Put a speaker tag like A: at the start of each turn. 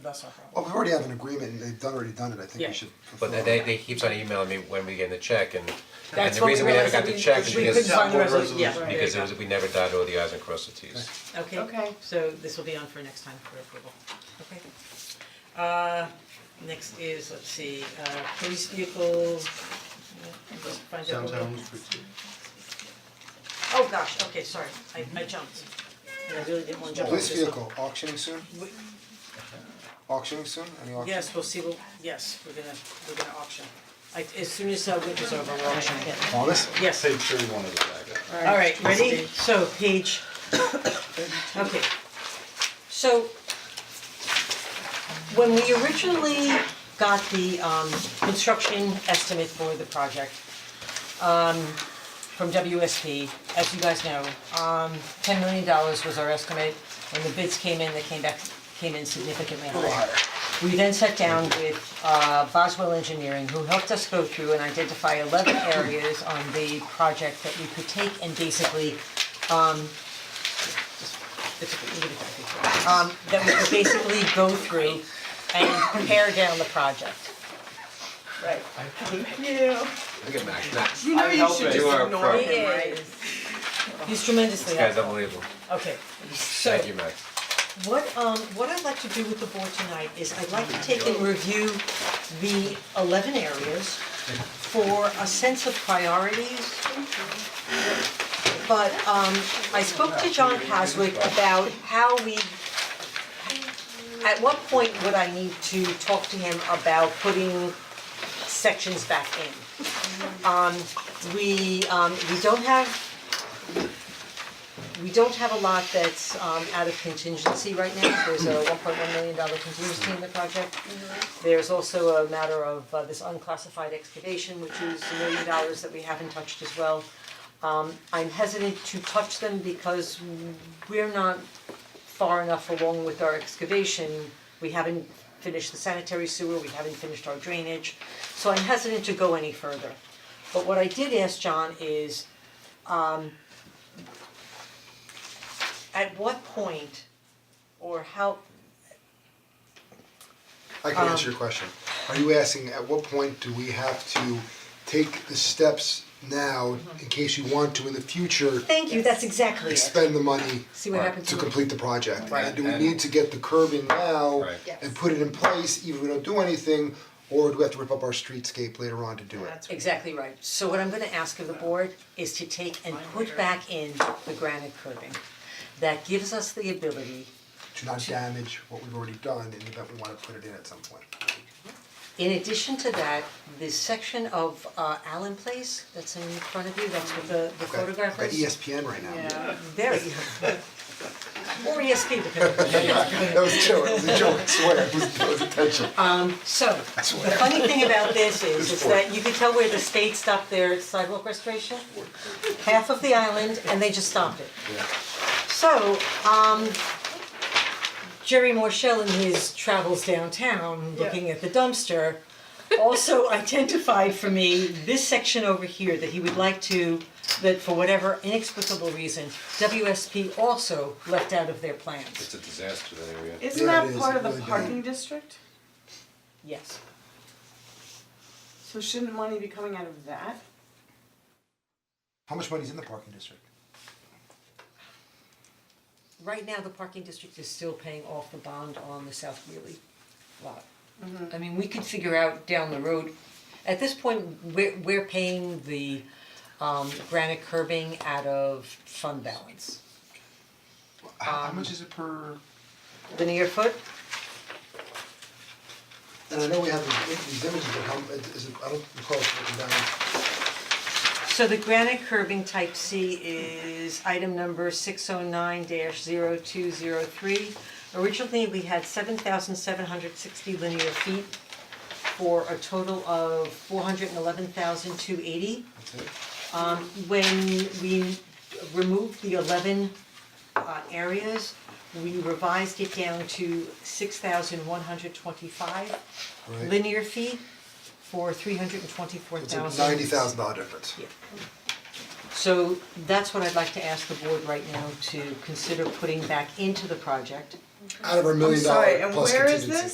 A: That's not a problem.
B: Well, we already have an agreement, and they've done, already done it, I think
A: Yeah.
B: we should
C: But
B: fulfill
C: they-
B: it.
C: they, they keeps on emailing me when we get the check and, and
A: That's
C: the
A: what we
C: reason we never
A: realized that
C: got the
A: we-
C: check is
A: we
C: because,
A: couldn't find a
D: Sound board
A: resolution, yeah,
D: resolution.
A: right,
C: because
A: there
C: there
A: you
C: was, we never dotted all the i's and crossed the t's.
A: go. Okay,
D: Okay.
A: so this will be on for next time for approval, okay? Uh, next is, let's see, uh, police vehicles, yeah, just find out. what we- Oh, gosh, okay, sorry, I I jumped, and I really didn't wanna jump.
B: Police
A: to this one.
B: vehicle auctioning soon,
A: We-
B: auctioning soon, any auction?
A: Yes, we'll see, we'll, yes, we're gonna, we're gonna auction, like, as soon as uh, winter's over, we're auctioning it.
B: Promise?
A: Yes,
D: Page thirty-one of the packet.
A: alright, ready, so page, okay, so. When we originally got the um construction estimate for the project, um, from WSP, as you guys know, um, ten million dollars was our estimate. When the bids came in, they came back, came in significantly higher. We then sat down with uh, Boswell Engineering, who helped us go through and identify eleven areas on the project that we could take and basically, um, just- it's okay, leave it at that. um, that we could basically go through and pare down the project. Right.
C: Look at Max, Max,
E: You know you
D: help
E: should
D: it.
E: just
C: you are a
E: ignore
C: pro,
E: it.
C: this
A: He's tremendously
C: guy's
A: helpful.
C: unbelievable,
A: Okay, so
C: thank you, Max.
A: what um what I'd like to do with the board tonight is I'd like to take and review the eleven areas for a sense of priorities. But um I spoke to John Haswick about how we at what point would I need to talk to him about putting sections back in? Um we um we don't have we don't have a lot that's um out of contingency right now, there's a one point one million dollar contingency in the project. There's also a matter of uh, this unclassified excavation, which is a million dollars that we haven't touched as well. Um, I'm hesitant to touch them because we're not far enough along with our excavation. We haven't finished the sanitary sewer, we haven't finished our drainage, so I'm hesitant to go any further. But what I did ask John is, at what point or how,
B: I can
A: Um,
B: answer your question. Are you asking, at what point do we have to take the steps now,
A: Mm-hmm.
B: in case you want to in the future,
A: thank you, that's exactly it.
B: expend the money
A: See what happens
B: to
A: to me.
B: complete the project?
A: Right.
B: And do we need to get the curb in now
C: Right.
E: Yes.
B: and put it in place, even if we don't do anything, or do we have to rip up our streetscape later on to do it?
A: Exactly right. So what I'm gonna ask of the board is to take and put back in the granite curbing. That gives us the ability,
B: To not damage what we've already done in the event we wanna put it in at some point.
A: in addition to that, this section of uh Allen Place that's in front of you, that's with the the
B: Okay. E
A: photograph
B: Got
A: is.
B: ESPN right now.
A: There you go. Or ESP depending on-
B: That was a joke, it was a joke, I swear, it was, it was intentional.
A: So, the funny thing about this is, is that you could tell where the state stopped their sidewalk restoration. Half of the island, and they just stopped it. So, um, Jerry Morshell in his travels downtown, looking at the dumpster, also identified for me this section over here that he would like to, that for whatever inexplicable reason, WSP also left out of their plans,
C: It's a disaster, that area.
E: Isn't
B: Yeah, it
E: that
B: is.
E: part
B: It
E: of the
B: really
E: parking district?
A: yes.
E: So shouldn't money be coming out of that?
B: How much money's in the parking district?
A: Right now, the parking district is still paying off the bond on the South Wheelie lot. I mean, we could figure out down the road, at this point, we're we're paying the um granite curbing out of fund balance.
B: How, how much is it per?
A: Linear foot,
B: And I know we have these, these images, but how, is it, I don't recall if it's written down.
A: so the granite curbing type C is item number six oh nine dash zero two zero three. Originally, we had seven thousand seven hundred sixty linear feet for a total of four hundred and eleven thousand two eighty.
B: That's it.
A: Um, when we removed the eleven uh areas, we revised it down to six thousand one hundred twenty-five
B: Right.
A: linear feet for three hundred and twenty-four
B: It's
A: thousand.
B: a ninety thousand dollar difference.
A: Yeah. So that's what I'd like to ask the board right now to consider putting back into the project.
B: Out of our million
E: sorry,
B: dollar
E: and
B: plus contingency.
E: where is this?